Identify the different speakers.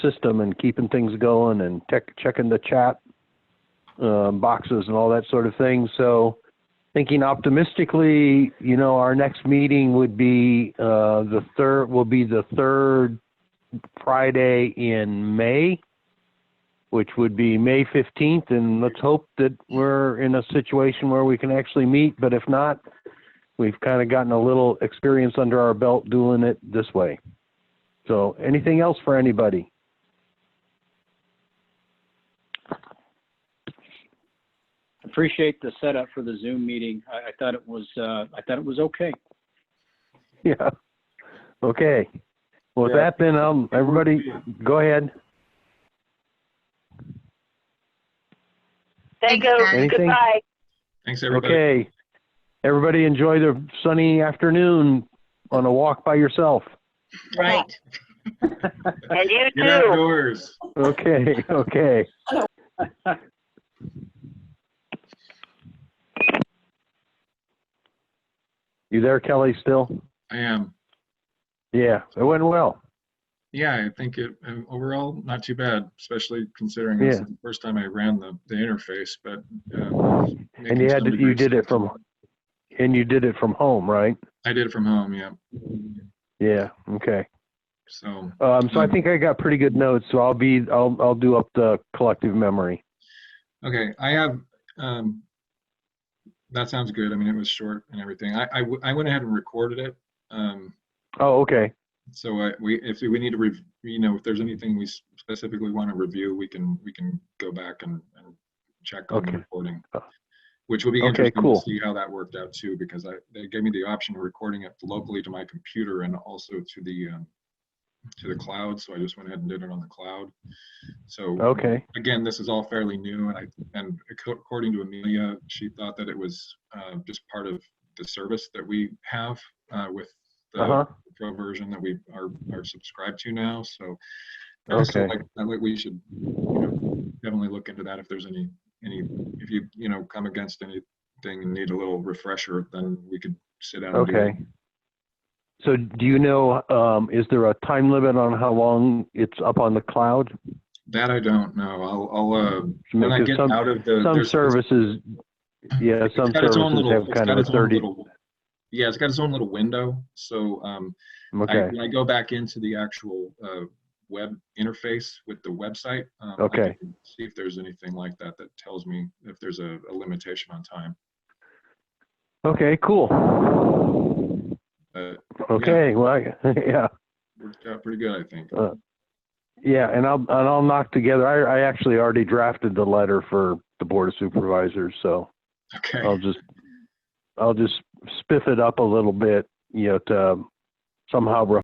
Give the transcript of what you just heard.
Speaker 1: system and keeping things going and tech, checking the chat um, boxes and all that sort of thing. So, thinking optimistically, you know, our next meeting would be uh, the third. Will be the third Friday in May, which would be May fifteenth. And let's hope that we're in a situation where we can actually meet. But if not, we've kind of gotten a little experience under our belt doing it this way. So, anything else for anybody?
Speaker 2: Appreciate the setup for the Zoom meeting. I, I thought it was, uh, I thought it was okay.
Speaker 1: Yeah. Okay. Well, with
Speaker 3: Yeah.
Speaker 1: that then, um, everybody, go ahead.
Speaker 4: Thank
Speaker 5: Thanks,
Speaker 4: you.
Speaker 5: guys.
Speaker 1: Anything?
Speaker 4: Goodbye.
Speaker 3: Thanks, everybody.
Speaker 1: Okay. Everybody enjoy their sunny afternoon on a walk by yourself.
Speaker 5: Right.
Speaker 4: And you
Speaker 3: Get
Speaker 4: too.
Speaker 3: outdoors.
Speaker 1: Okay, okay. You there, Kelly, still?
Speaker 3: I am.
Speaker 1: Yeah, it went well.
Speaker 3: Yeah, I think it, um, overall, not too bad, especially considering this
Speaker 1: Yeah.
Speaker 3: is the first time I ran the, the interface, but. um,
Speaker 1: And
Speaker 3: making
Speaker 1: you had,
Speaker 3: some
Speaker 1: to- you
Speaker 3: degrees.
Speaker 1: did it from, and you did it from home, right?
Speaker 3: I did it from home, yeah.
Speaker 1: Yeah, okay.
Speaker 3: So,
Speaker 1: Um, so I
Speaker 3: Mm.
Speaker 1: think I got pretty good notes, so I'll be, I'll, I'll do up the collective memory.
Speaker 3: okay, I have, um, that sounds good. I mean, it was short and everything. I, I, w- I went ahead and recorded it. Um,
Speaker 1: Oh, okay,
Speaker 3: so I, we, if we need to rev, you know, if there's anything we s- specifically want to review, we can, we can go back and, and check on the
Speaker 1: Okay.
Speaker 3: recording.
Speaker 1: Uh,
Speaker 3: Which will be
Speaker 1: okay,
Speaker 3: interesting to
Speaker 1: cool.
Speaker 3: see how that worked out too, because I, they gave me the option of recording it locally to my computer and also to the, um, to the cloud. So I just went ahead and did it on the cloud. So
Speaker 1: okay,
Speaker 3: again, this is all fairly new, and I, and ac- according to Amelia, she thought that it was uh, just part of the service that we have uh, with
Speaker 1: uh-huh,
Speaker 3: the pro version that we are, are subscribed to now, so. I also
Speaker 1: Okay.
Speaker 3: like- I like, we should, you know, definitely look into that if there's any, any, if you, you know, come against anything and need a little refresher, then we could sit down. and do it.
Speaker 1: okay. So do you know, um, is there a time limit on how long it's up on the cloud?
Speaker 3: That I don't know, I'll, I'll, uh, when I
Speaker 1: Because
Speaker 3: get
Speaker 1: some-
Speaker 3: out of the.
Speaker 1: Some
Speaker 3: there's- it's-
Speaker 1: services, yeah,
Speaker 3: It's
Speaker 1: some
Speaker 3: got its own
Speaker 1: services
Speaker 3: little-
Speaker 1: have
Speaker 3: it's
Speaker 1: kind
Speaker 3: got
Speaker 1: of a
Speaker 3: its own
Speaker 1: thirty,
Speaker 3: little- Yeah, it's got its own little window. So um, I,
Speaker 1: okay,
Speaker 3: when I go back into the actual uh, web interface with the website, um, I
Speaker 1: Okay.
Speaker 3: can see if there's anything like that that tells me if there's a, a limitation on time.
Speaker 1: okay, cool.
Speaker 3: But
Speaker 1: Okay, well, I- yeah,
Speaker 3: worked out pretty good, I think.
Speaker 1: Uh, yeah, and I'll, and I'll knock together, I, I actually already drafted the letter for the Board of Supervisors, so.
Speaker 3: Okay.
Speaker 1: I'll just, I'll just spiff it up a little bit, you know, to somehow